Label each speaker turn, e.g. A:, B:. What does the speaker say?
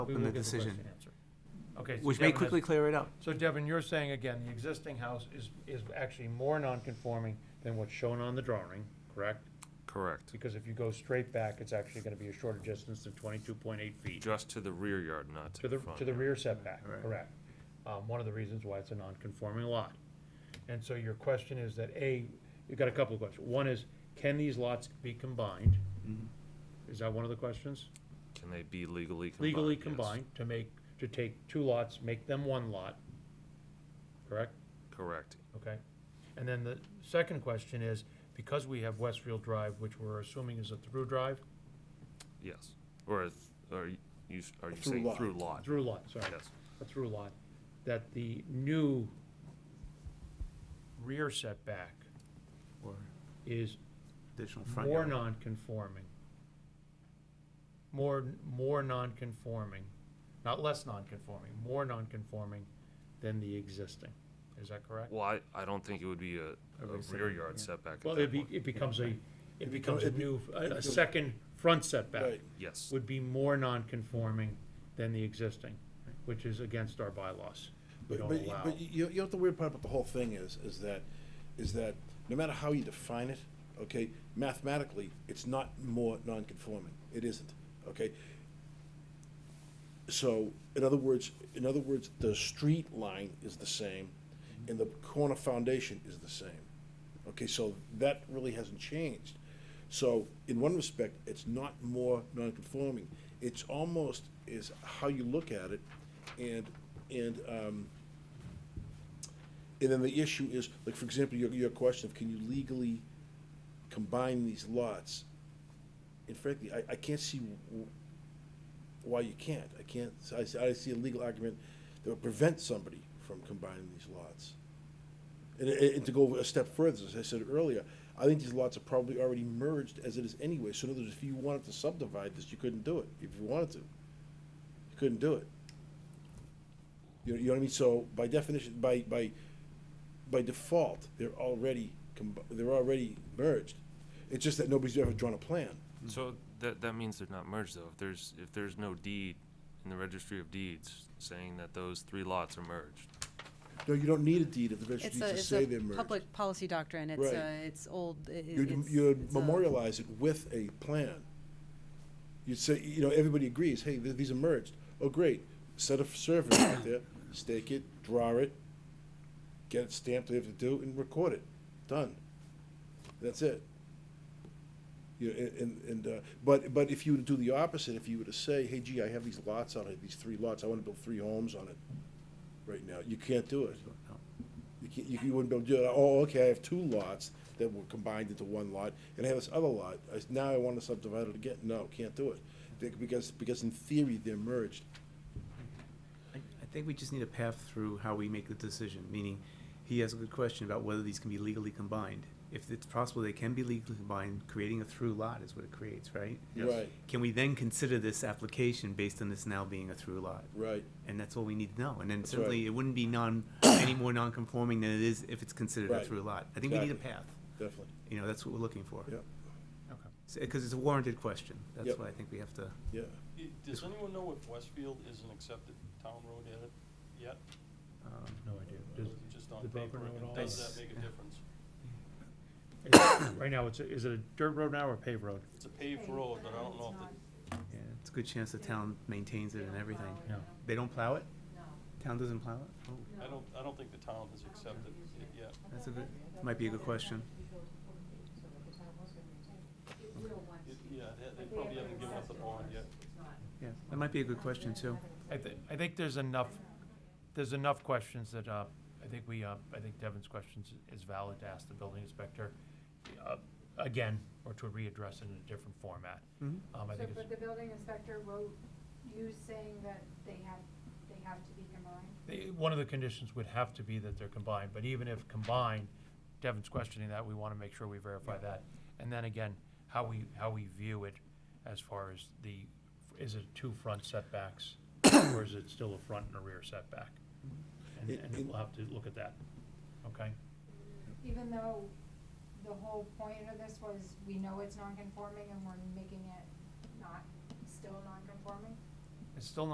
A: We
B: on
A: will
B: the
A: get question
B: decision,
A: answered. Okay. so
B: which may
A: Devin has-
B: quickly clear it up.
A: So Devin, you're saying again, the existing house is, is actually more non-conforming than what's shown on the drawing, correct?
C: Correct,
A: Because if you go straight back, it's actually gonna be a shorter distance of twenty-two point eight feet
C: just to the rear yard, not
A: to the,
C: front.
A: to the rear setback,
B: Right.
A: correct? Um, one of the reasons why it's a non-conforming lot. And so your question is that, A, you've got a couple of questions. One is, can these lots be combined?
B: Mm-hmm.
A: Is that one of the questions?
C: Can they be legally combined?
A: legally
C: Yes,
A: combined to make, to take two lots, make them one lot. Correct?
C: Correct,
A: Okay. And then the second question is, because we have Westfield Drive, which we're assuming is a through drive,
C: yes. Or, is- or you, are you
D: Through
C: saying
D: lot.
C: through lot?
A: through lot, sorry,
C: Yes.
A: a through lot, that the new rear setback
B: Or
A: is
B: additional front
A: more
B: yard.
A: non-conforming. More, more non-conforming, not less non-conforming, more non-conforming than the existing. Is that correct?
C: Well, I, I don't think it would be a, a rear
B: setback,
C: yard setback at
A: Well, it
C: that
A: be,
C: point.
A: it becomes a, it becomes a
D: it'd be-
A: new, a, a
D: becomes-
A: second front setback
D: Right.
C: Yes,
A: would be more non-conforming than the existing, which is against our bylaws. We
D: But,
A: don't
D: but,
A: allow.
D: but you, you know, what the weird part about the whole thing is, is that, is that no matter how you define it, okay, mathematically, it's not more non-conforming. It isn't, okay? So, in other words, in other words, the street line is the same and the corner foundation is the same. Okay, so that really hasn't changed. So, in one respect, it's not more non-conforming. It's almost is how you look at it and, and, um, and then the issue is, like, for example, your, your question of can you legally combine these lots? And frankly, I, I can't see w- why you can't. I can't, I, see- I see a legal argument that would prevent somebody from combining these lots. And, and and to go a step further, as I said earlier, I think these lots are probably already merged as it is anyway. So in other words, if you wanted to subdivide this, you couldn't do it, if you wanted to. You couldn't do it. You know, you know what I mean? So by definition, by, by, by default, they're already, comb- they're already merged. It's just that nobody's ever drawn a plan.
C: so that, that means they're not merged though. If there's, if there's no deed in the registry of deeds saying that those three lots are merged.
D: No, you don't need a deed if the registry
E: It's a,
D: deeds
E: it's
D: say
E: a
D: they're merged.
E: public policy doctrine. It's,
D: Right.
E: uh, it's old. i- i-
D: You'd,
E: it's-
D: you'd
E: it's uh, a-
D: memorialize it with a plan. You'd say, you know, everybody agrees, hey, th- these are merged. Oh, great, set a survey out there, stake it, draw it, get it stamped, they have to do, and record it, done. That's it. You, know, a- and, and, uh, but, but if you were to do the opposite, if you were to say, hey, gee, I have these lots on it, these three lots, I wanna build three homes on it right now, you can't do it.
B: No.
D: You can't, you you wouldn't be able to do it, oh, okay, I have two lots that were combined into one lot, and I have this other lot, I s- now I want to subdivide it again, no, can't do it. Be- Because, because in theory, they're merged.
B: I I think we just need a path through how we make the decision, meaning he has a good question about whether these can be legally combined. If it's possible they can be legally combined, creating a through lot is what it creates, right?
C: Yes.
D: Right,
B: Can we then consider this application based on this now being a through lot?
D: right,
B: And that's all we need to know. And then
D: That's
B: certainly
D: right.
B: it wouldn't be non, any more non-conforming than it is if it's considered a
D: Right.
B: through lot. I think we need a
D: Exactly.
B: path.
D: definitely,
B: You know, that's what we're looking for.
D: yeah,
A: Okay.
B: Because it's a warranted question. That's
D: Yep.
B: why I think we have to.
D: yeah.
F: I- Does anyone know if Westfield is an accepted town road yet, yet?
B: um,
A: No idea.
F: Or
A: Does-
F: is it just on
A: the Broken
F: paper?
A: Road
F: and
A: all
F: Does
B: is-
F: that make a difference?
A: it's- Right now, it's, a- is it a dirt road now or a paved road?
F: It's a paved road, but I don't know if it,
B: Yeah, it's a good chance the town maintains it and everything.
A: Yeah.
B: They don't plow it? Town doesn't plow it? Oh,
F: I don't, I don't think the town has accepted it yet.
B: that's a good, might be a good question.
F: It- Yeah, they- they probably haven't given up the bond yet.
B: Yeah, that might be a good question too.
A: I thi- I think there's enough, there's enough questions that, uh, I think we, uh, I think Devin's questions is valid to ask the building inspector, uh, again, or to readdress it in a different format.
D: Mm-hmm.
B: Mhm.
A: Um, I
G: So,
A: think it's.
G: but the building inspector wrote you saying that they have, they have to be combined?
A: Eh, One of the conditions would have to be that they're combined, but even if combined, Devin's questioning that, we want to make sure we verify that. And then again, how we, how we view it as far as the, is it two front setbacks? Or is it still a front and a rear setback? And,
D: It-
A: and
D: it-
A: we'll have to look at that, okay?
G: Even though the whole point of this was, we know it's non-conforming and we're making it not, still non-conforming?
A: It's still not